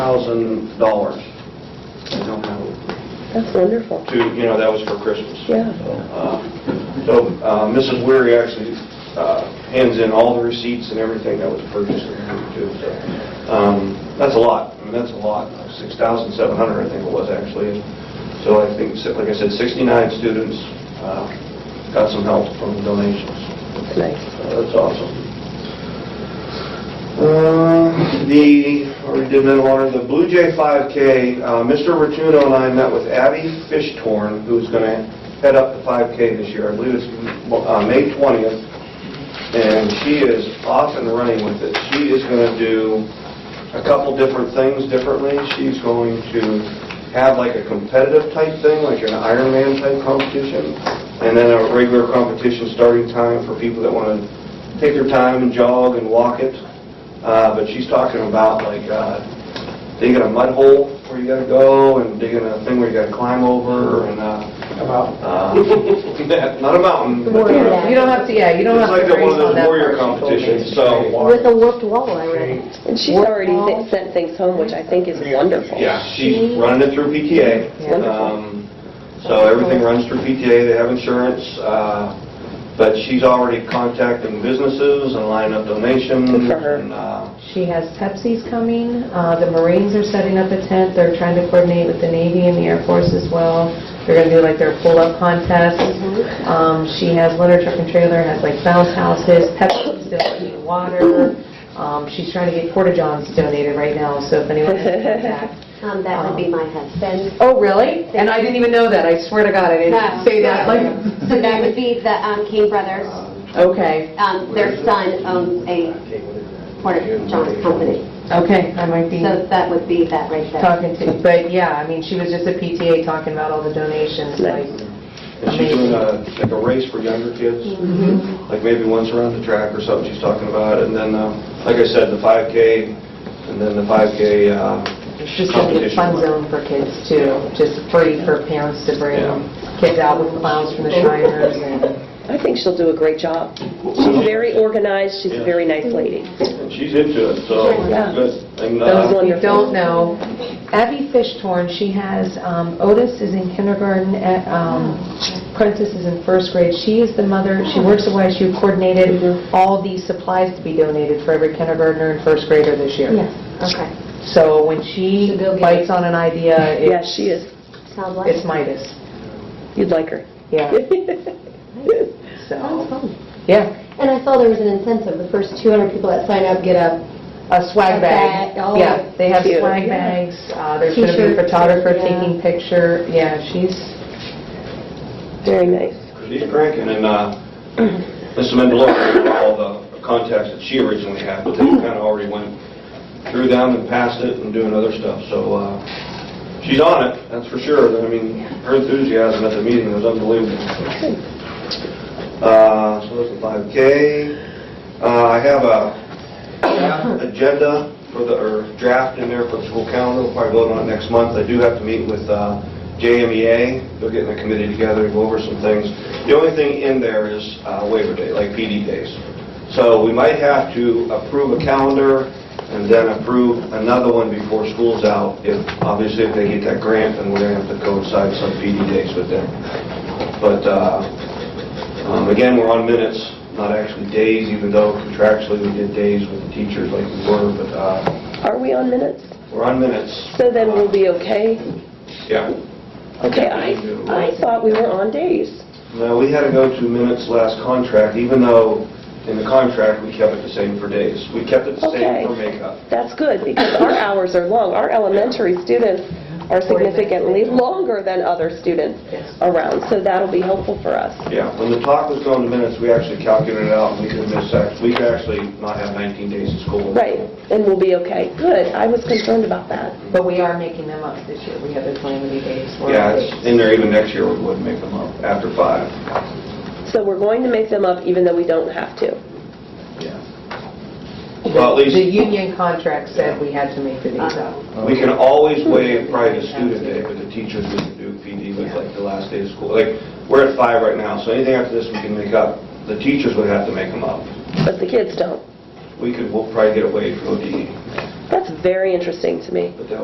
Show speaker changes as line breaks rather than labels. thousand dollars. I don't know,
That's wonderful.
to, you know, that was for Christmas.
Yeah.
Uh, So uh, Mrs. Weary actually uh, hands in all the receipts and everything that was purchased and everything too. So, um, That's a lot, I mean, that's a lot, 6,700 I think it was actually. So I think, like I said, 69 students uh, got some help from the donations.
It's nice.
That's awesome. Uh, The, or we did mental honor, the Blue Jay 5K, uh, Mr. Rotuno and I met with Abby Fishtorn, who's going to head up the 5K this year. I believe it's uh, May 20th, and she is off and running with it. She is going to do a couple different things differently. She's going to have like a competitive type thing, like an Ironman type competition, and then a regular competition starting time for people that want to take their time and jog and walk it. Uh, But she's talking about like uh, digging a mud hole where you gotta go, and digging a thing where you gotta climb over, and, uh, uh, not a mountain. but, uh,
Yeah, You don't have to, yeah, you don't have to worry
It's like
about
one of
that.
those warrior
part, she told me.
competitions, so...
With a warped wall, I read.
And she's already th- sent things home, which I think is wonderful.
Yeah, she's running it through PTA.
Yeah.
Um, So everything runs through PTA, they have insurance, uh, but she's already contacting businesses and lining up donations.
Good for her.
and, uh,
She has Pepsi's coming, uh, the Marines are setting up a tent, they're trying to coordinate with the Navy and the Air Force as well. They're gonna do like their pull-up contest. Um, she has litter truck and trailer, has like bounce houses, Pepsi's donating water. Um, she's trying to get porta-johns donated right now, so if anyone has contact.
Um, that would be my husband.
Oh, really? And I didn't even know that, I swear to God, I
No.
didn't say Uh, that, like.
So that would be the um, King brothers.
Okay,
Um, Their son owns a Porter John company.
okay, I might be.
So that would be that right there.
talking to, but yeah, I mean, she was just at PTA talking about all the donations, like,
And she's doing a, like a race for younger kids, like maybe once around the track or something she's talking about. And then, um, like I said, the 5K, and then the 5K uh,
it's just gonna be a fun zone for kids too, just free for parents to bring
Yeah.
kids out with clowns from the Shriners and...
I think she'll do a great job. She's very organized, she's a very nice lady.
And she's into it, so
Yeah.
good. And, uh,
Those
Those who
wonderful.
don't know, Abby Fishtorn, she has, um, Otis is in kindergarten, at, um, Prentice is in first grade. She is the mother, she works at YSU, coordinated all the supplies to be donated for every kindergartner and first grader this year.
Okay.
So when she
To go get
bites on an idea,
Yeah,
it's
she is.
Sounds like.
it's Midas.
You'd like her.
Yeah,
Sounds
so,
fun.
yeah,
And I saw there was an incentive, the first 200 people that sign up get a,
a swag
A
bag.
bag, oh,
Yeah, they have
cute.
swag bags, uh, there's going to be a
T-shirts,
photographer
yeah.
taking picture, yeah, she's,
Very nice.
She's cranking, and uh, Mrs. Mendelow, all the contacts that she originally had, but they kind of already went through them and passed it and doing other stuff, so uh, she's on it, that's for sure. I mean, her enthusiasm at the meeting was unbelievable. Uh, So that's the 5K. Uh, I have a draft agenda for the, or draft in there for the school calendar, we'll probably vote on it next month. I do have to meet with uh, JMEA, they're getting a committee together to go over some things. The only thing in there is uh, waiver day, like PD days. So we might have to approve a calendar and then approve another one before school's out. If, obviously, if they get that grant, then we're gonna have to coincide some PD days with them. But uh, um, Again, we're on minutes, not actually days, even though contractually we did days with the teachers like we were, but uh,
Are we on minutes?
we're on minutes.
So then we'll be okay?
Yeah.
Okay, I, I thought we were on days.
No, we had to go to minutes last contract, even though in the contract, we kept it the same for days. We kept it the
Okay.
same for makeup.
That's good, because our hours are long. Our elementary students are significantly longer than other students around, so that'll be helpful for us.
Yeah, when the talk was going to minutes, we actually calculated it out, and we could miss, act- we could actually not have 19 days of school.
Right, and we'll be okay. Good, I was concerned about that.
but we are making them up this year, we have the calamity days. We're
Yeah,
on
it's
days.
in there even next year, we wouldn't make them up after five.
So we're going to make them up even though we don't have to.
Yeah. Well, at least...
The union contract said we had to make the days up.
Uh, We can always waive private student day, but the teachers wouldn't do PD with like the last day of school. Like, we're at five right now, so anything after this we can make up. The teachers would have to make them up.
But the kids don't.
We could, we'll probably get away from ODE,
That's very interesting to me.
E, but that